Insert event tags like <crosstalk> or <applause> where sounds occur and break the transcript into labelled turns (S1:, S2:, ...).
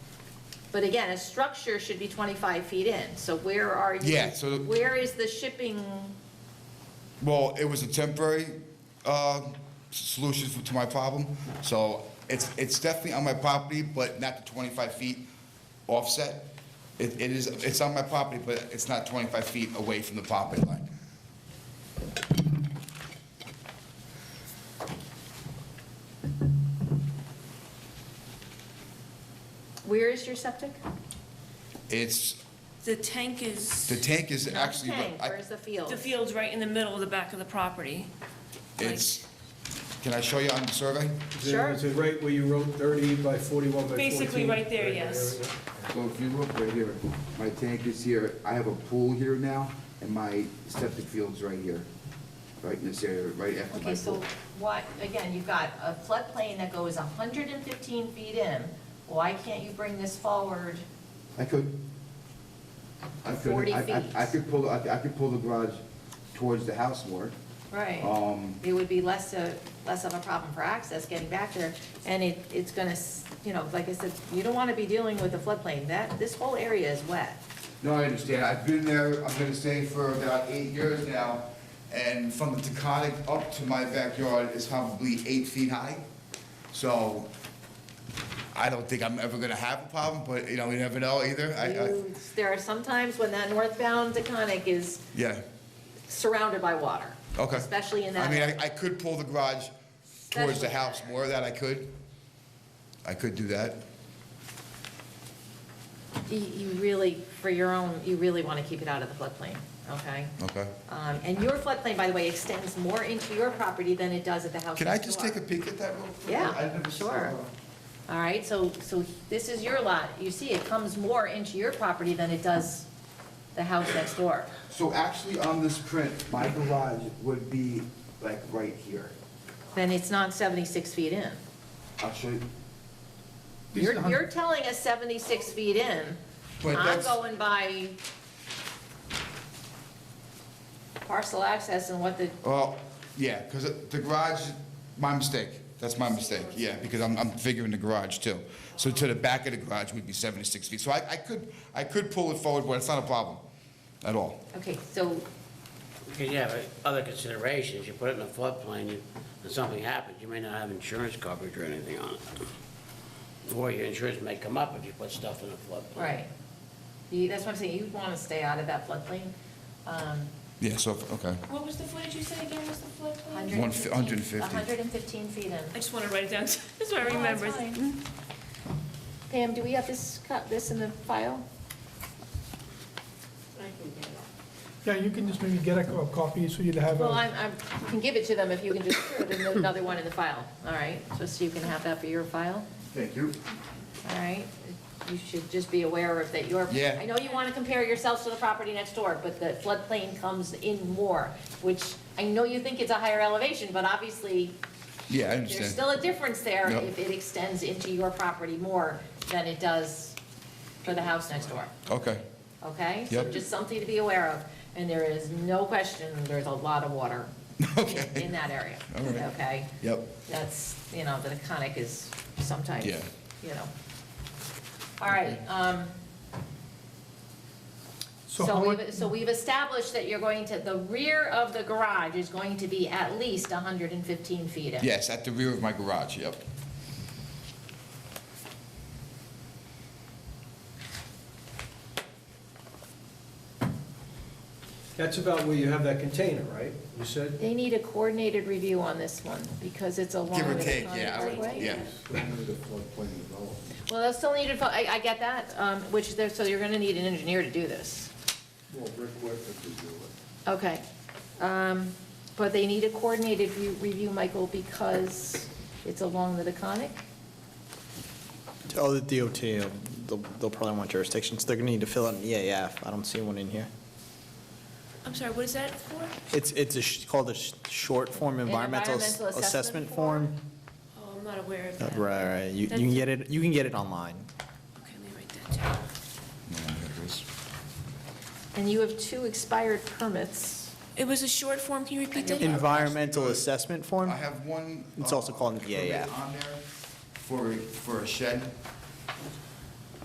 S1: But again, a structure should be 25 feet in, so where are you?
S2: Yeah, so the-
S1: Where is the shipping,
S2: Well, it was a temporary uh, s- solution for- to my problem, so it's, it's definitely on my property, but not the 25 feet offset. It it is, it's on my property, but it's not 25 feet away from the property line.
S1: where is your septic?
S2: It's,
S3: The tank is,
S2: the tank is actually,
S1: Tank,
S2: I-
S1: where's the field?
S3: the field's right in the middle of the back of the property.
S2: it's, can I show you on the survey?
S1: Sure.
S4: Is it right where you wrote 30 by 41 by 14?
S3: Basically right there, yes.
S4: yeah.
S5: So if you look right here, my tank is here, I have a pool here now, and my septic field's right here, right in this area, right after my
S1: Okay, so
S5: pool.
S1: why, again, you've got a floodplain that goes 115 feet in, why can't you bring this forward?
S5: I could, I could,
S1: 40
S5: I-
S1: feet.
S5: I, I could pull, I I could pull the garage towards the house more.
S1: Right.
S5: Um,
S1: It would be less of, less of a problem for access getting back there, and it, it's gonna, s- you know, like I said, you don't wanna be dealing with the floodplain, that, this whole area is wet.
S2: No, I understand. I've been there, I'm gonna say for about eight years now, and from the Taconic up to my backyard is probably eight feet high. So I don't think I'm ever gonna have a problem, but, you know, you never know either. I, I,
S1: You- There are some times when that northbound Deconic is
S2: yeah,
S1: surrounded by water.
S2: okay.
S1: Especially in
S2: I
S1: that,
S2: mean,
S1: area.
S2: I, I could pull the garage towards the
S1: Especially-
S2: house more, that I could. I could do that.
S1: you, you really, for your own, you really wanna keep it out of the floodplain, okay?
S2: Okay.
S1: Um, And your floodplain, by the way, extends more into your property than it does at the house
S2: Can I
S1: next
S2: just
S1: door.
S2: take a peek at that real quick? I
S1: Yeah,
S2: never saw
S1: sure.
S2: that.
S1: All right, so, so this is your lot. You see, it comes more into your property than it does the house next door.
S5: So actually, on this print, my garage would be like right here.
S1: Then it's not 76 feet in.
S5: I'll show you.
S1: You're, you're telling us 76 feet in.
S2: But
S1: I'm
S2: that's-
S1: going by parcel access and what the,
S2: Well, yeah, because the garage, my mistake. That's my mistake, yeah, because I'm, I'm figuring the garage too. So to the back of the garage would be 76 feet. So I, I could, I could pull it forward, but it's not a problem at all.
S1: okay, so,
S6: Because you have other considerations, you put it in a floodplain, you- and something happens, you may not have insurance coverage or anything on it. Or your insurance may come up if you put stuff in a floodplain.
S1: right. You- That's what I'm saying, you want to stay out of that floodplain. Um,
S2: Yeah, so, okay.
S3: What was the footage you said again was the floodplain?
S1: 115
S2: 150.
S1: 115 feet in.
S3: I just want to write it down, <laughs> so Oh, that's what I
S1: No, that's
S3: remember.
S1: fine. Pam, do we have this, co- this in the file?
S7: Yeah, you can just maybe get a co- copy so you'd have
S1: Well,
S7: a,
S1: I'm, I'm, you can give it to them if you can just put it in another one in the file, all right? So, so you can have that for your file,
S5: Thank you.
S1: all right? You should just be aware of that your.
S2: Yeah.
S1: I know you want to compare yourselves to the property next door, but the floodplain comes in more, which I know you think it's a higher elevation, but obviously
S2: Yeah, I
S1: there's
S2: understand.
S1: still a difference there
S2: Yep.
S1: if it extends into your property more than it does for the house next door.
S2: Okay,
S1: Okay? So
S2: Yep.
S1: Just something to be aware of. And there is no question, there's a lot of water
S2: <laughs> Okay.
S1: in- in that area.
S2: All right.
S1: Okay?
S2: yep.
S1: That's, you know, the conic is sometimes, you
S2: Yeah.
S1: know. All right. um,
S7: so
S1: So
S7: how much,
S1: we've, so we've established that you're going to, the rear of the garage is going to be at least 115 feet in.
S2: Yes, at the rear of my garage, yep.
S4: That's about where you have that container, right? You said?
S1: They need a coordinated review on this one because it's along
S2: Give or
S1: the
S2: take,
S1: Conic
S2: yeah, I
S1: Parkway.
S2: would, yeah.
S5: <laughs>
S1: Well, they'll still need, a fo- I, I get that, um, which there, so you're gonna need an engineer to do this. Well, Rick Whitman could do it. Okay, um, but they need a coordinated re- review, Michael, because it's along the Deconic?
S8: Oh, the DOT, they'll, they'll probably want jurisdictions, they're gonna need to fill out an EAF, I don't see one in here.
S3: I'm sorry, what is that for?
S8: It's, it's a sh- called a sh- short form environmental s-
S1: environmental assessment
S8: assessment
S1: form.
S8: form.
S3: Oh, I'm not aware of
S8: Uh,
S3: that.
S8: Right, right, you, you
S3: That's-
S8: can get it, you can get it online.
S3: Okay, let me write that down.
S1: And you have two expired permits.
S3: It was a short form, can you repeat that?
S8: Environmental assessment form?
S2: I have one.
S8: It's also
S2: uh,
S8: called an
S2: permit
S8: EAF.
S2: On there for, for a shed,